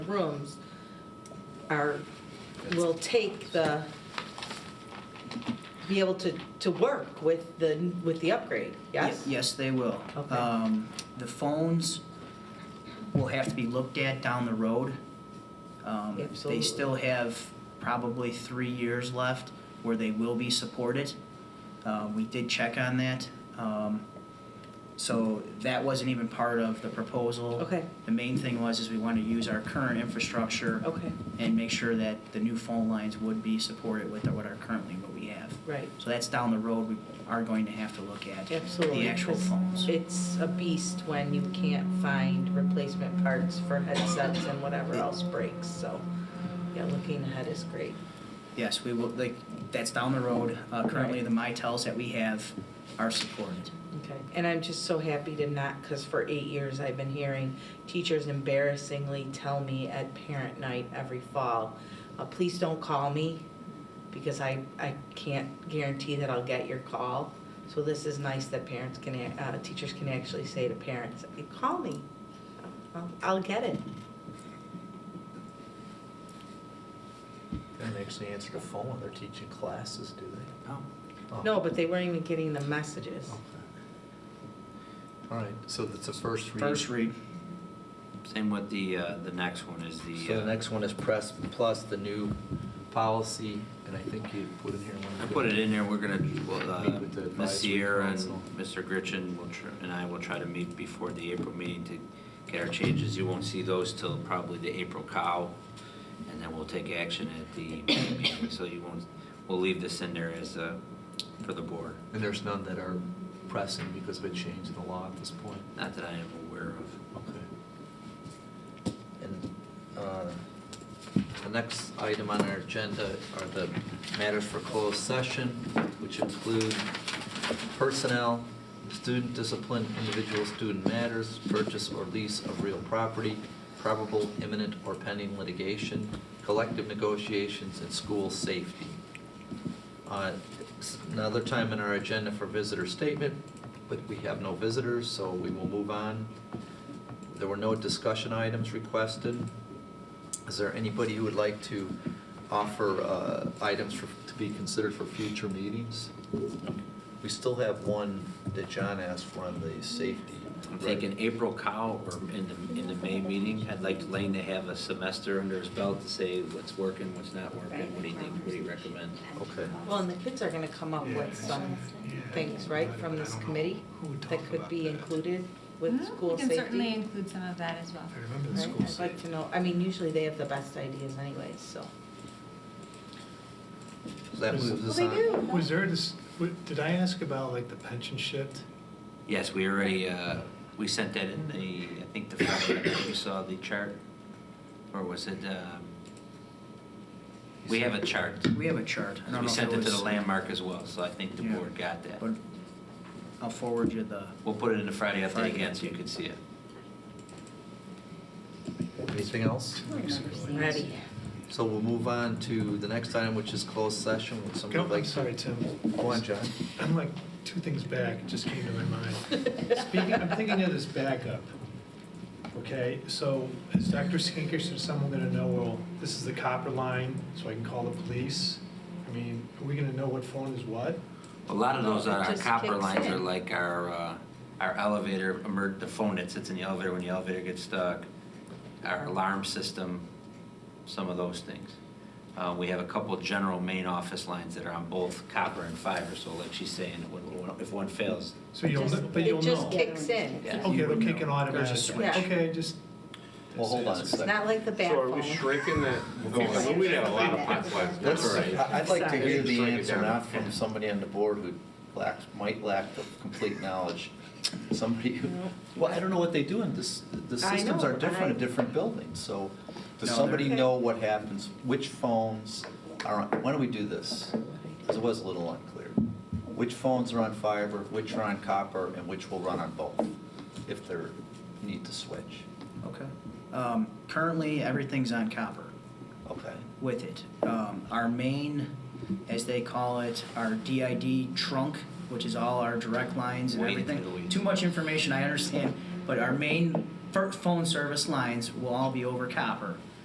rooms are, will take the, be able to, to work with the, with the upgrade, yes? Ye- Yes, they will. Okay. Um, The phones will have to be looked at down the road. Um, Absolutely. They still have probably three years left where they will be supported. Uh, We did check on that. Um, So that wasn't even part of the proposal. Okay. The main thing was is we want to use our current infrastructure Okay, and make sure that the new phone lines would be supported with what are currently what we have. right. So that's down the road, we are going to have to look at Absolutely. the actual phones. It's a beast when you can't find replacement parts for headsets and whatever else breaks, so, yeah, looking ahead is great. Yes, we will, like, that's down the road. Uh, Currently, the MyTels that we have are supported. Okay, and I'm just so happy to not, because for eight years I've been hearing teachers embarrassingly tell me at parent night every fall, uh, please don't call me because I, I can't guarantee that I'll get your call. So this is nice that parents can, a- uh, teachers can actually say to parents, call me, I'll, I'll get it. They don't actually answer the phone when they're teaching classes, do they? Oh, Oh, No, but they weren't even getting the messages. okay. All right, so that's a first read. First read. Same with the, uh, the next one is the. So uh, the next one is press plus the new policy, and I think you put in here one. I put it in there, we're gonna, well, Meet uh, with the Ms. advisory Sierra and council. Mr. Gritchen will, tr- and I will try to meet before the April meeting to get our changes. You won't see those till probably the April cow, and then we'll take action at the meeting. So you won't, we'll leave this in there as a, for the board, And there's none that are pressing because of a change in the law at this point. not that I am aware of. Okay. And uh, the next item on our agenda are the matters for closed session, which include personnel, student discipline, individual student matters, purchase or lease of real property, probable imminent or pending litigation, collective negotiations, and school safety. Uh, s- Another time in our agenda for visitor statement, but we have no visitors, so we will move on. There were no discussion items requested. Is there anybody who would like to offer uh, items for- to be considered for future meetings? We still have one that John asked for on the safety. I'm thinking April cow or in the, in the May meeting, I'd like Lane to have a semester under his belt to say what's working, what's not working, what do you think, what do you recommend? Okay. Well, and the kids are gonna come up with some things, right, from this committee that could be included with Well, school Hmm? We safety? can certainly include some of that as well. I remember the Right, school I'd like safety. to know, I mean, usually they have the best ideas anyways, so. So that moves us on. Was there this, w- did I ask about like the pension shift? Yes, we already, uh, we sent that in the, I think the first time that you saw the chart, or was it, um, we have a chart. We have a chart. I don't know We if sent it to the was- landmark as well, so I think the Yeah. board got that. But I'll forward you the, We'll put it in the Friday update Friday. again so you can see it. Anything else? Ready. So we'll move on to the next item, which is closed session. Would somebody Go- like I'm to- sorry, Tim. Go on, John. I'm like two things back, it just came to my mind. Speaking, I'm thinking of this backup. Okay, so is Dr. Skinkers or someone gonna know, well, this is the copper line, so I can call the police? I mean, are we gonna know what phone is what? A lot of those It are our just copper kicks lines in. are like our, uh, our elevator, emer- the phone that sits in the elevator when the elevator gets stuck, our alarm system, some of those things. Uh, we have a couple general main office lines that are on both copper and fiber, so like she's saying, when- when- if one fails, So you'll, Just- kn- but you'll It just know. kicks in. Yeah. Okay, it'll kick There's in a automatically. switch. Yeah. Okay, just. Well, hold on a It's second. not like the bad So are we phone. shrinking that? Well, We have a lot of That's all right. I- I'd like to Sorry. hear Just the break it answer, down. not from somebody on the board who lacks, might lack the complete knowledge. Somebody who, well, I don't know what they do in this, the I systems are know, different I- in different buildings, so does No, somebody they're- know what happens, which phones are, on- why don't we do this? Because it was a little unclear. Which phones are on fiber, which are on copper, and which will run on both, if there need to switch, okay. Um, Currently, everything's on copper. okay? with it. Um, our main, as they call it, our DID trunk, which is all our direct lines and Wait until we- everything. Too much information, I understand, but our main fir- phone service lines will all be over copper.